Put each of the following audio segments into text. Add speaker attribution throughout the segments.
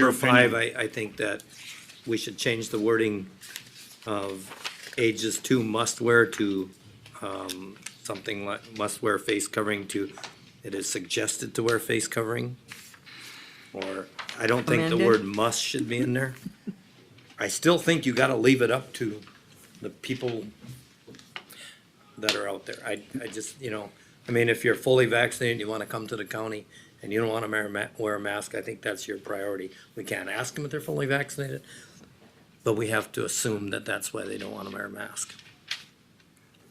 Speaker 1: Number
Speaker 2: opinion.
Speaker 1: five, I, I think that we should change the wording of ages two must wear to, um, something like must wear face covering to, it is suggested to wear face covering. Or, I don't think the
Speaker 3: Amended.
Speaker 1: word must should be in there. I still think you gotta leave it up to the people that are out there. I, I just, you know, I mean, if you're fully vaccinated, you wanna come to the county and you don't wanna wear a ma- wear a mask, I think that's your priority. We can't ask them if they're fully vaccinated, but we have to assume that that's why they don't wanna wear a mask.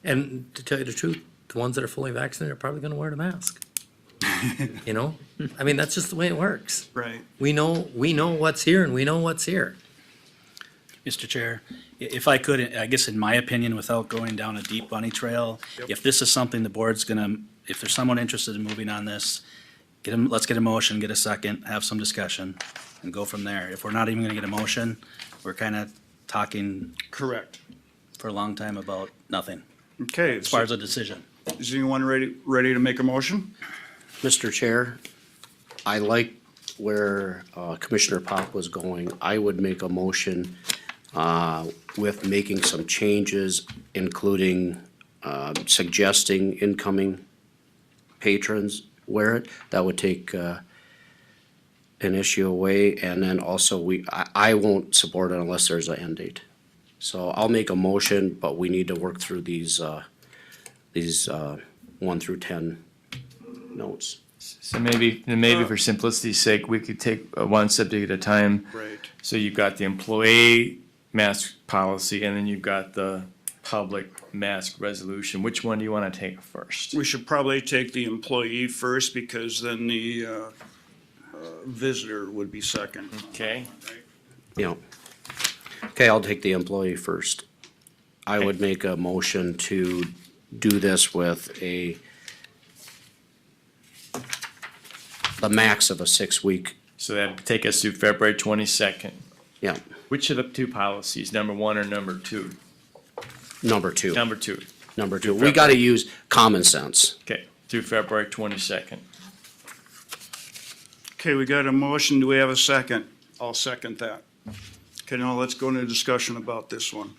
Speaker 1: And to tell you the truth, the ones that are fully vaccinated are probably gonna wear the mask. You know, I mean, that's just the way it works.
Speaker 2: Right.
Speaker 1: We know, we know what's here and we know what's here.
Speaker 4: Mr. Chair, i- if I could, I guess in my opinion, without going down a deep bunny trail, if this is something the board's gonna, if there's someone interested in moving on this, get them, let's get a motion, get a second, have some discussion, and go from there. If we're not even gonna get a motion, we're kinda talking
Speaker 2: Correct.
Speaker 4: for a long time about nothing,
Speaker 2: Okay,
Speaker 4: as far
Speaker 2: so
Speaker 4: as a decision.
Speaker 2: is anyone ready, ready to make a motion?
Speaker 5: Mr. Chair, I like where uh, Commissioner Pop was going. I would make a motion uh, with making some changes, including um, suggesting incoming patrons wear it. That would take uh, an issue away, and then also we, I, I won't support it unless there's an end date. So I'll make a motion, but we need to work through these, uh, these uh, one through ten notes.
Speaker 6: So maybe, then maybe for simplicity's sake, we could take uh, one subject at a time.
Speaker 2: Right.
Speaker 6: So you've got the employee mask policy, and then you've got the public mask resolution. Which one do you want to take first?
Speaker 2: We should probably take the employee first because then the, uh, uh, visitor would be second.
Speaker 6: Okay,
Speaker 5: Yeah. Okay, I'll take the employee first. I would make a motion to do this with a the max of a six-week,
Speaker 6: so that'd take us through February twenty-second.
Speaker 5: yeah,
Speaker 6: Which of the two policies, number one or number two?
Speaker 5: number two,
Speaker 6: Number two,
Speaker 5: number two. We gotta use common sense.
Speaker 6: okay, through February twenty-second.
Speaker 2: Okay, we got a motion. Do we have a second? I'll second that. Okay, now let's go into discussion about this one.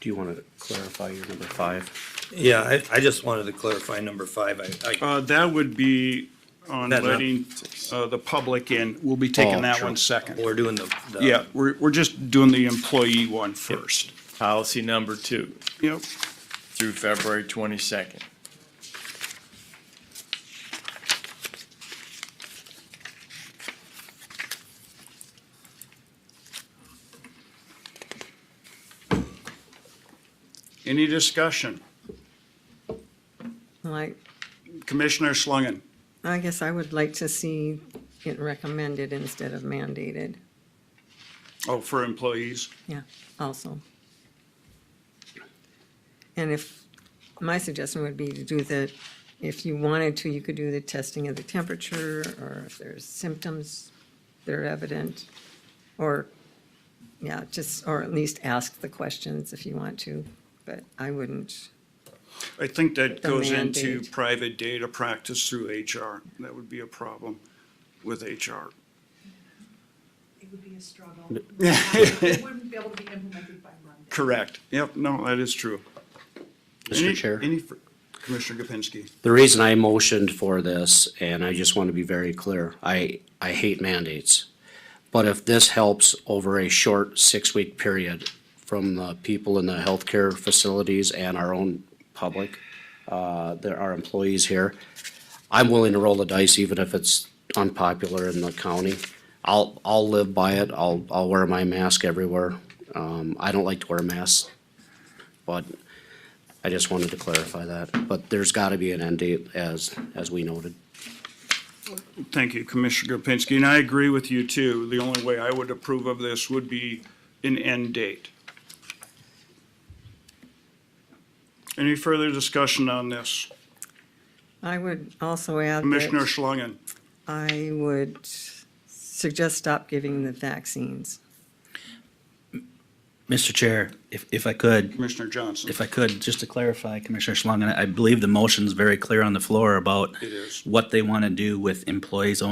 Speaker 5: Do you wanna clarify your number five?
Speaker 1: Yeah, I, I just wanted to clarify number five. I, I
Speaker 2: Uh, that would be on
Speaker 1: That's not-
Speaker 2: letting, uh, the public in. We'll be taking
Speaker 5: Oh,
Speaker 2: that
Speaker 5: sure.
Speaker 2: one second.
Speaker 1: We're doing the. the-
Speaker 2: Yeah, we're, we're just doing the employee one first.
Speaker 6: Policy number two,
Speaker 2: Yep.
Speaker 6: through February twenty-second.
Speaker 2: Any discussion?
Speaker 3: Like,
Speaker 2: Commissioner Schlangen?
Speaker 3: I guess I would like to see it recommended instead of mandated,
Speaker 2: Oh, for employees?
Speaker 3: yeah, also. And if, my suggestion would be to do the, if you wanted to, you could do the testing of the temperature, or if there's symptoms that are evident, or, yeah, just, or at least ask the questions if you want to, but I wouldn't,
Speaker 2: I think that
Speaker 3: The
Speaker 2: goes into
Speaker 3: mandate.
Speaker 2: private data practice through HR. That would be a problem with HR.
Speaker 7: it would be a struggle. It wouldn't be able to be implemented by Monday.
Speaker 2: Correct. Yep, no, that is true. Any-
Speaker 5: Mr. Chair?
Speaker 2: Any, fr- Commissioner Gopinski?
Speaker 5: The reason I motioned for this, and I just want to be very clear, I, I hate mandates. But if this helps over a short six-week period from the people in the healthcare facilities and our own public, uh, there are employees here, I'm willing to roll the dice even if it's unpopular in the county. I'll, I'll live by it. I'll, I'll wear my mask everywhere. Um, I don't like to wear masks, but I just wanted to clarify that, but there's gotta be an end date as, as we noted.
Speaker 2: Thank you, Commissioner Gopinski, and I agree with you too. The only way I would approve of this would be an end date. Any further discussion on this?
Speaker 3: I would also add that.
Speaker 2: Commissioner Schlangen?
Speaker 3: I would suggest stop giving the vaccines.
Speaker 4: Mr. Chair, if, if I could,
Speaker 2: Commissioner Johnson?
Speaker 4: If I could, just to clarify, Commissioner Schlangen, I I believe the motion's very clear on the floor about
Speaker 2: It is.
Speaker 4: what they want to do with employees only.